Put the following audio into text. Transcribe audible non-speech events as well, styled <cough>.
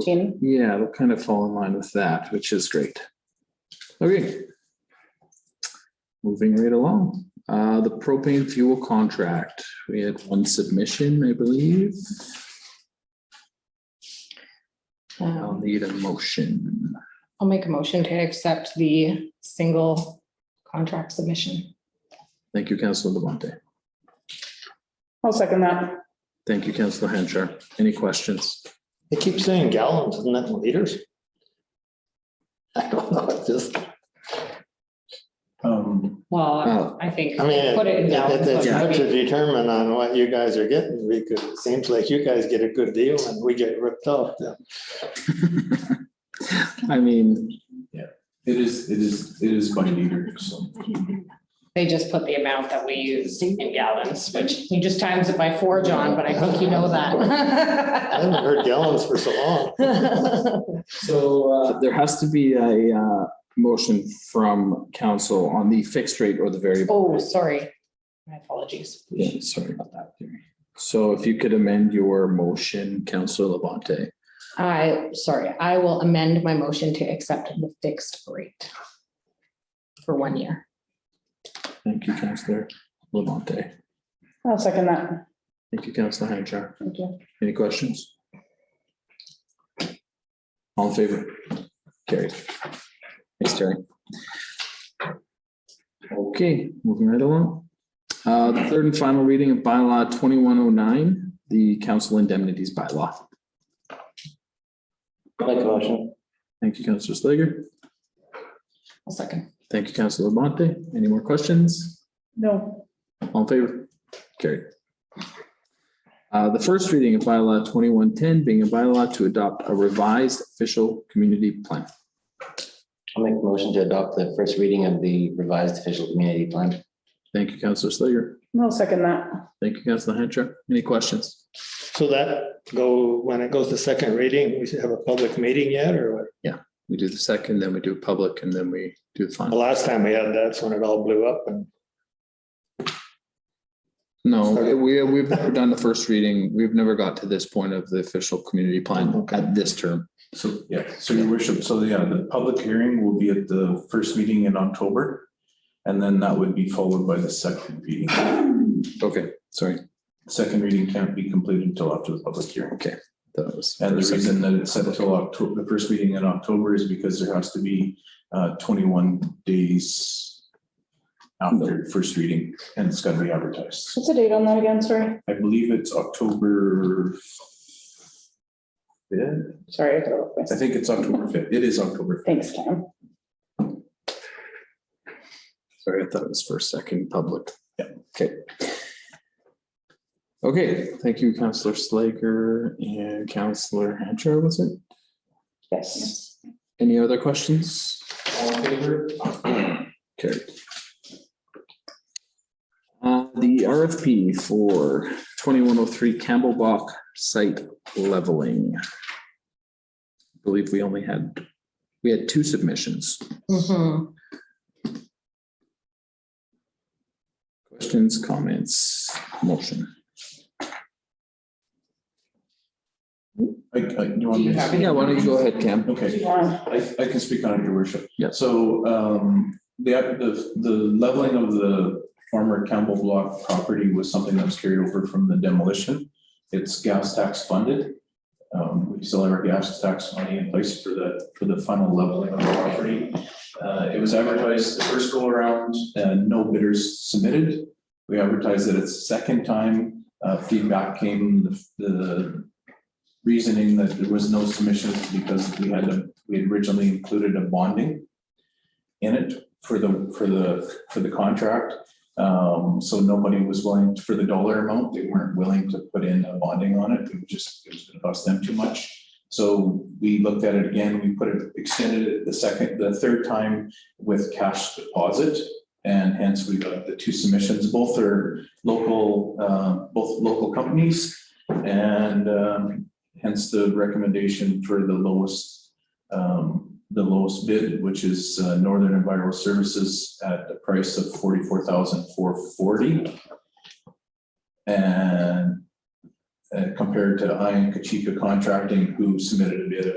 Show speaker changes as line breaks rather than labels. Jeannie?
Yeah, it'll kind of fall in line with that, which is great. Okay. Moving right along, uh, the propane fuel contract, we had one submission, I believe. I'll
Um,
need a motion.
I'll make a motion to accept the single contract submission.
Thank you, Councilor Levante.
I'll second that.
Thank you, Councilor Hanchar. Any questions?
They keep saying gallons, isn't that in liters? <laughs> I don't know, it's just,
Um,
Well,
Oh,
I think,
I mean,
Put it in
it-
gallons,
it- it's
like,
hard
what do
to determine on what you guys are getting, because it seems like you guys get a good deal and we get ripped off. then.
I mean,
it is, it is, it is by meter, so.
they just put the amount that we use in gallons, which he just times it by four, John, but I think you know
I haven't
that. <laughs>
heard gallons for so long.
so uh, there has to be a uh, motion from council on the fixed rate or the variable.
Oh, sorry. My apologies.
Yeah, sorry about that. Gary. So if you could amend your motion, Counselor Levante.
I, sorry, I will amend my motion to accept the fixed rate for one year.
Thank you, Counselor Levante.
I'll second that.
Thank you, Counselor Hanchar.
Thank you.
Any questions? All in favor? Carried. Thanks, Terry. Okay, moving right along. Uh, the third and final reading of bylaw twenty-one oh nine, the council indemnities bylaw.
Make a motion.
Thank you, Counselor Slager.
I'll second.
Thank you, Counselor Levante. Any more questions?
No,
All in favor? Carried. Uh, the first reading of bylaw twenty-one ten being a bylaw to adopt a revised official community plan.
I'll make a motion to adopt the first reading of the revised official community plan.
Thank you, Counselor Slager.
I'll second that.
Thank you, Counselor Hancher. Any questions?
So that go, when it goes to second reading, we should have a public meeting yet, or what?
We do the second, then we do public, and then we do the
the
final.
last time we had that's when it all blew up and.
No, we, we've never done the first reading. We've never got to this point of the official community plan at this term.
So, yeah, so your worship, so yeah, the public hearing will be at the first meeting in October. And then that would be followed by the second reading.
Okay, sorry.
Second reading can't be completed until after the public hearing.
Okay, that was.
And the reason
second.
that it's set until October, the first meeting in October is because there has to be uh twenty-one days after first reading, and it's gotta be advertised.
What's the date on that again? Sorry.
I believe it's October. fifth.
Sorry. I got it off my-
I think it's October fifth. It is October.
Thanks, Tom.
Sorry, I thought it was first, second, public.
Yeah.
Okay. Okay, thank you, Counselor Slager and Counselor Hancher, was it?
Yes.
Any other questions? All in favor? <clears throat> Carried. Uh, the RFP for twenty-one oh three Campbell Bach site leveling. I Believe we only had, we had two submissions.
Mhm.
Questions, comments, motion?
I, I, you
Do
want me
you have
to?
any-
Yeah, why don't you go ahead, Cam?
Okay,
Yeah.
I, I can speak on it, your worship.
Yeah.
So, um, the, the, the leveling of the former Campbell Block property was something that was carried over from the demolition. It's gas tax funded. Um, we still have our gas tax money in place for the, for the final leveling of the property. Uh, it was advertised the first go around, uh, no bidders submitted. We advertised it a second time, uh, feedback came, the, the reasoning that there was no submissions because we had a we had originally included a bonding in it for the, for the, for the contract. Um, so nobody was willing, for the dollar amount, they weren't willing to put in a bonding on it, it was just, it was gonna cost them too much. So we looked at it again, we put it, extended it the second, the third time with cash deposit. And hence we got the two submissions, both are local, uh, both local companies. And, um, hence the recommendation for the lowest um, the lowest bid, which is uh, Northern Environmental Services at the price of forty-four thousand four forty. And uh, compared to I and Kachika Contracting, who submitted a bid of